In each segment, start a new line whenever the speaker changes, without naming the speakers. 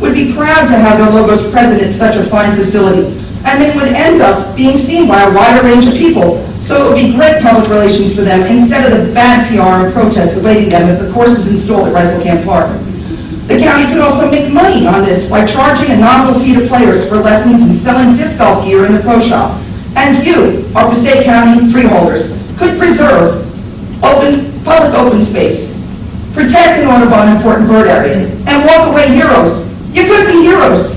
would be proud to have their logos present at such a fine facility, and it would end up being seen by a wider range of people. So it would be great public relations for them, instead of the bad PR and protests awaiting them if the course is installed at Rifle Camp Park. The county could also make money on this by charging a nominal fee to players for lessons and selling disc golf gear in the pro shop. And you, our Passaic County freeholders, could preserve open, public open space, protect an Audubon important bird area, and walk away heroes. You could be heroes.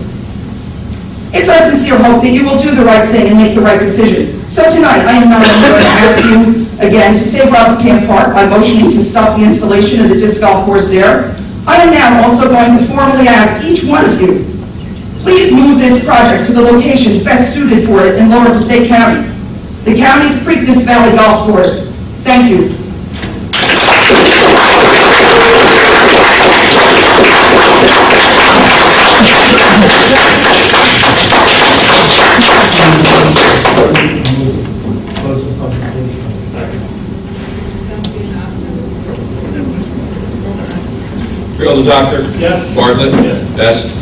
It's our sincere hope that you will do the right thing and make the right decision. So tonight, I am not only going to ask you again to save Robert Camp Park by motioning to stop the installation of the disc golf course there. I am now also going to formally ask each one of you, please move this project to the location best suited for it in Lower Passaic County, the county's Preakness Valley Golf Course. Thank you.
Close the public hearing.
Freeholder Doctor?
Yes.
Bartlett?
Yes.
Best?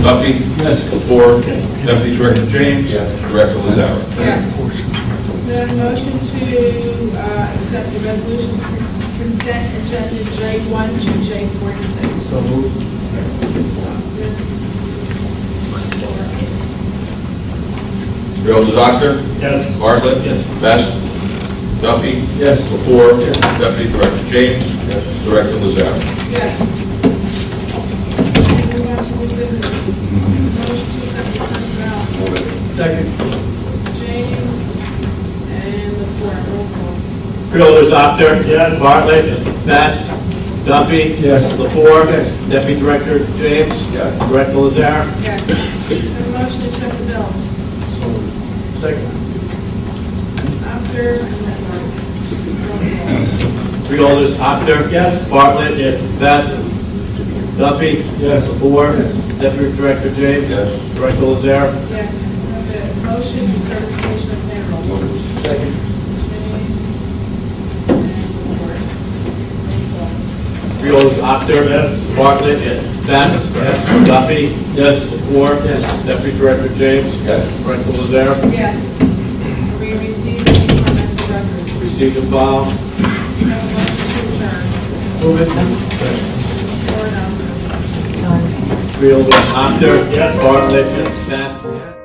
Duffy?
Yes.
Lepore? Deputy Director James? Director Lazar?
Yes. The motion to uh, accept the resolutions for consent agenda J1 to J46.
So moved.
Freeholder Doctor?
Yes.
Bartlett?
Yes.
Best? Duffy?
Yes.
Lepore? Deputy Director James? Director Lazar?
Yes. Moving on to new business. Motion to accept the personnel,
Second.
James and the four, roll call.
Freeholders, Actor.
Yes.
Bartlett. Best. Duffy.
Yes.
Lepore.
Yes.
Deputy Director James.
Yes.
Director Lazar.
Yes. The motion to accept the bills,
Second.
after, and then roll call.
Freeholders, Actor.
Yes.
Bartlett. Best. Duffy.
Yes.
Lepore. Deputy Director James.
Yes.
Director Lazar.
Yes. The motion to certification of payroll.
Second.
Freeholders, Actor.
Yes.
Bartlett. Best. Duffy. Yes. Lepore. Deputy Director James.
Yes.
Director Lazar.
Yes. We received the department record.
Received and filed.
Have a motion to
Move it.
adjourn. Or not.
Freeholders, Actor.
Yes.
Bartlett. Best.